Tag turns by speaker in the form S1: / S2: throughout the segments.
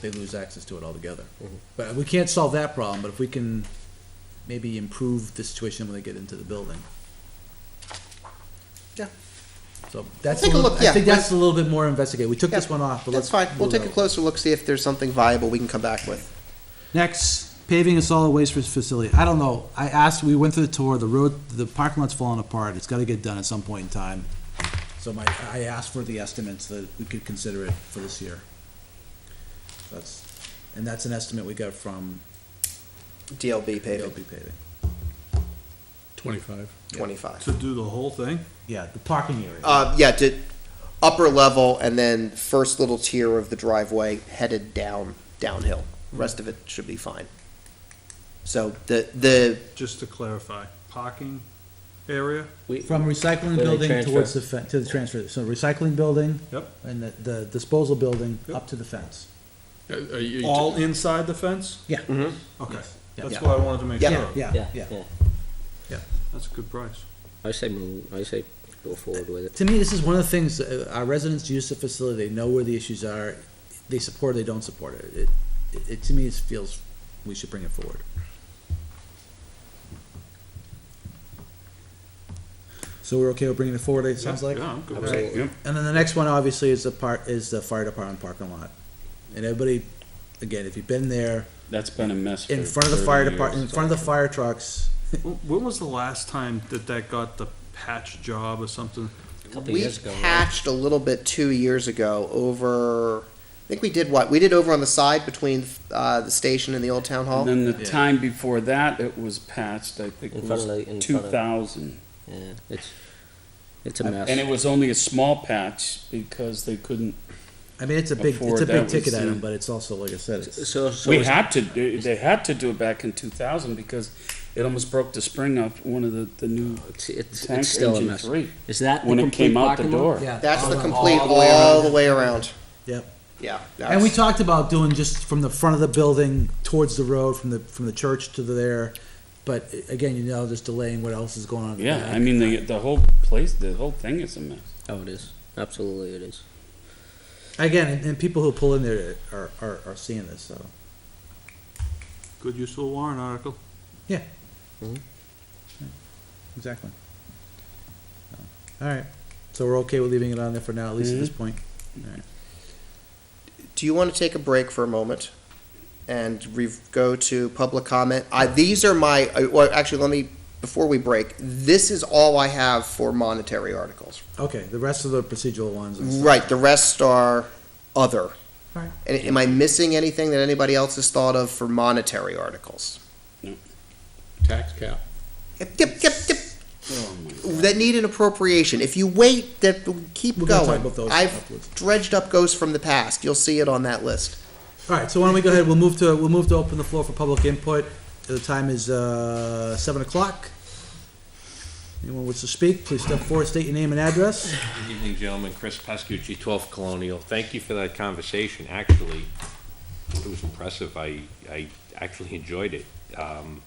S1: they lose access to it altogether.
S2: Mm-hmm.
S1: But we can't solve that problem, but if we can maybe improve the situation when they get into the building.
S2: Yeah.
S1: So that's, a
S2: take a
S1: little-
S2: look,
S1: I
S2: yeah,
S1: think
S2: we'll-
S1: that's a little bit more investigated. We took
S2: Yeah,
S1: this one off, but
S2: That's
S1: let's.
S2: fine. We'll
S1: do
S2: take
S1: that
S2: a
S1: one.
S2: closer look, see if there's something viable we can come back with.
S1: Next, paving a solid waste facility. I don't know. I asked, we went through the tour, the road, the parking lot's falling apart. It's gotta get done at some point in time. So my, I asked for the estimates that we could consider it for this year. That's, and that's an estimate we got from
S2: DLB paving,
S1: LP paving.
S3: Twenty-five.
S2: twenty-five.
S4: To do the whole thing?
S1: Yeah, the parking area.
S2: Uh, yeah, to upper level and then first little tier of the driveway headed down, downhill. Rest of it should be fine. So the, the,
S4: Just to clarify, parking area?
S1: From recycling
S3: they
S1: building
S3: transfer.
S1: towards the fence, to the transfer, so recycling building.
S4: Yep.
S1: And the, the disposal building
S4: Yep.
S1: up to the fence.
S4: All inside the fence?
S1: Yeah.
S4: Okay,
S1: Yeah.
S4: that's what I wanted to make
S2: Yeah.
S4: sure of.
S1: Yeah, yeah.
S4: That's a good price.
S3: I say move, I say go forward with it.
S1: To me, this is one of the things, uh, our residents use the facility, they know where the issues are, they support it, they don't support it. It, it- it, to me, it feels we should bring it forward. So we're okay with bringing it forward, it sounds like?
S4: Yeah, I'm good with
S3: Absolutely.
S4: that. Yep.
S1: And then the next one, obviously, is the part, is the fire department parking lot. And everybody, again, if you've been there,
S5: That's been a mess.
S1: in
S5: for
S1: front of the fire
S5: 30
S1: department, in
S5: years.
S1: front of the fire trucks,
S4: When when was the last time that that got the patch job or something?
S3: Couple
S2: we
S3: years ago, right?
S2: patched a little bit two years ago over, I think we did what? We did over on the side between, uh, the station and the old town
S5: And
S2: hall.
S5: then the
S1: Yeah.
S5: time before that, it was patched, I think
S3: In
S5: it
S3: front of the- in
S5: was two
S3: front of-
S5: thousand.
S3: Yeah, Uh, it's, it's a
S5: And it
S3: mess.
S5: was only a small patch because they couldn't,
S1: I mean, it's a big,
S5: Before
S1: it's a
S5: that
S1: big
S5: was
S1: ticket
S5: the-
S1: item, but it's also, like I said, it's.
S3: So, so
S5: we
S3: is-
S5: had to, do- they had to do it back in two thousand because it almost broke the spring off one of the, the new
S3: it's, it's,
S5: tank
S3: it's still a
S5: engine
S3: mess.
S5: three.
S3: Is that the
S5: When it
S3: complete
S5: came out the
S3: parking lot?
S5: door.
S2: That's the
S1: all-
S2: complete,
S1: all the way around.
S2: all the way around.
S1: Yep.
S2: Yeah.
S1: And we
S2: that's-
S1: talked about doing just from the front of the building towards the road, from the, from the church to there. But a- again, you know, just delaying what else is going on. in the
S5: Yeah,
S1: back.
S5: I mean, the, the whole place, the whole thing is a mess.
S3: Oh, it is. Absolutely it is.
S1: Again, and, and people who pull in there are, are, are seeing this, so.
S4: Good use of a warrant article. Mm-hmm.
S1: Exactly. All right, so we're okay with leaving it on there for now, at least
S5: Mm-hmm.
S1: at this point? All right.
S2: do you want to take a break for a moment and re- go to public comment? I, these are my, uh, well, actually, let me, before we break, this is all I have for monetary articles.
S1: Okay, the rest of the procedural ones. and stuff.
S2: Right, the rest are other.
S1: Right.
S2: And am I missing anything that anybody else has thought of for monetary articles?
S3: Tax cap.
S2: Yep, yep, yep, yep,
S5: Oh, my
S2: that need an appropriation. If you wait, that, keep
S1: We're gonna talk
S2: going.
S1: about those afterwards.
S2: I've dredged up ghosts from the past. You'll see it on that list.
S1: All right, so why don't we go ahead, we'll move to, we'll move to open the floor for public input. The time is, uh, seven o'clock. Anyone wants to speak, please step forward, state your name and address.
S6: Good evening, gentlemen. Chris Pascucci, 12 Colonial. Thank you for that conversation. Actually, it was impressive. I, I actually enjoyed it. Um,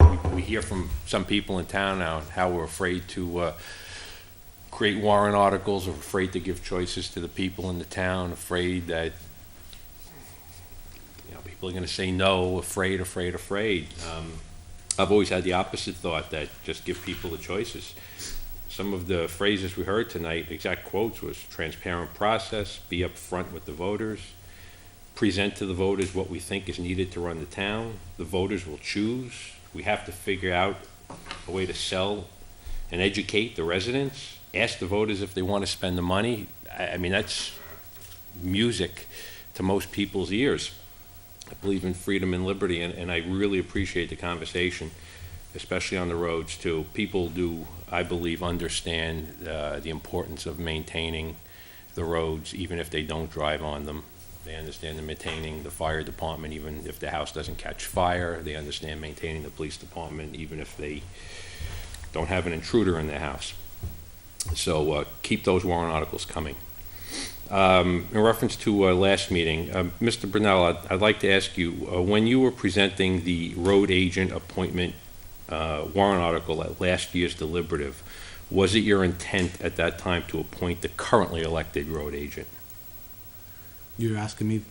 S6: we- We hear from some people in town now how we're afraid to uh, create warrant articles, or afraid to give choices to the people in the town, afraid that, you know, people are going to say no, afraid, afraid, afraid. Um, I've always had the opposite thought, that just give people the choices some of the phrases we heard tonight, exact quotes, was transparent process, be upfront with the voters, present to the voters what we think is needed to run the town, the voters will choose, we have to figure out a way to sell and educate the residents, ask the voters if they want to spend the money. I, I mean, that's music to most people's ears. I believe in freedom and liberty, and, and I really appreciate the conversation, especially on the roads, too. People do I believe, understand uh, the importance of maintaining the roads, even if they don't drive on them. They understand the maintaining the fire department, even if the house doesn't catch fire. They understand maintaining the police department, even if they don't have an intruder in their house. So uh, keep those warrant articles coming. Um, In reference to uh, last meeting, um, Mr. Brunel, I'd- I'd like to ask you, uh, when you were presenting the road agent appointment uh, warrant article at last year's deliberative, was it your intent at that time to appoint the currently elected road agent?
S1: You're asking me